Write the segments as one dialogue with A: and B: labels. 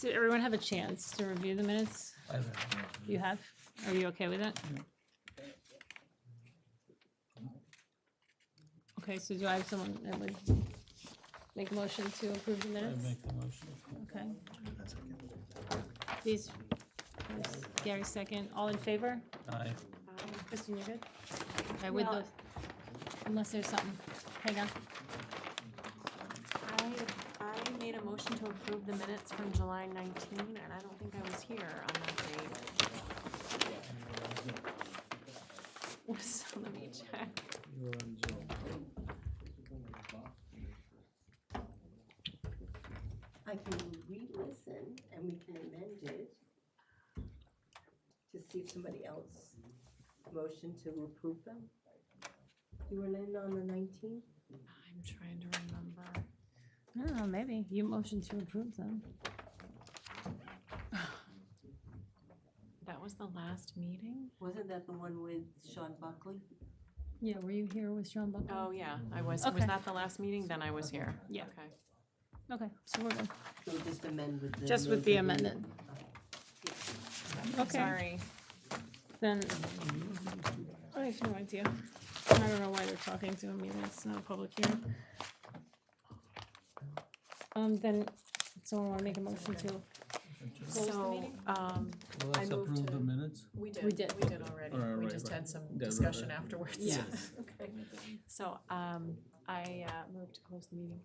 A: Did everyone have a chance to review the minutes? You have? Are you okay with it? Okay, so do I have someone that would make a motion to approve the
B: I
A: minutes?
B: make the motion.
A: Okay. Please, please, Gary second. All in favor?
B: Aye.
A: Kristen, you're good? Okay, with
C: No.
A: those, unless there's something. Hang on.
C: I, I made a motion to approve the minutes from July 19, and I don't think I was here on that date. So let me check.
D: I can re-listen and we can amend it to see if somebody else motioned to approve them. You were in on the nineteenth?
C: I'm trying to remember.
A: Oh, maybe. You motioned to approve them.
C: That was the last meeting?
D: Wasn't that the one with Sean Buckley?
A: Yeah, were you here with Sean Buckley?
C: Oh, yeah, I was.
A: Okay.
C: Was that the last meeting? Then I was here.
A: Yeah.
C: Okay.
A: Okay, so we're good.
D: So just amend with the.
A: Just with the
D: amended-
A: amendment. Okay,
C: Sorry.
A: then, I have no idea. I don't know why they're talking to him either, it's not a public hearing. Um, then, someone wanna make a motion to, Close the
C: So,
A: meeting?
C: um,
B: Well,
C: I
B: let's
C: move
B: approve the
C: to-
B: minutes.
C: we did,
A: We
C: we
A: did.
C: did
B: All right,
C: already. We
B: right,
C: just
B: right.
C: had some
B: Yeah, right,
C: discussion
B: right.
C: afterwards.
A: Yeah.
C: Okay. So, um, I, uh, moved to close the meeting.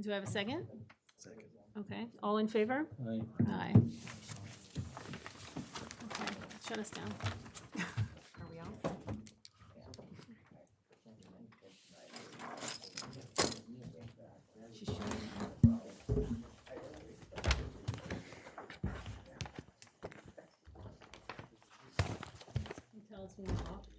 A: do I have a second? Second. Okay, all in favor?
B: Aye.
A: Aye. Okay, shut us down.
C: Are we on?
A: She shut it down. You Tell us when you're off.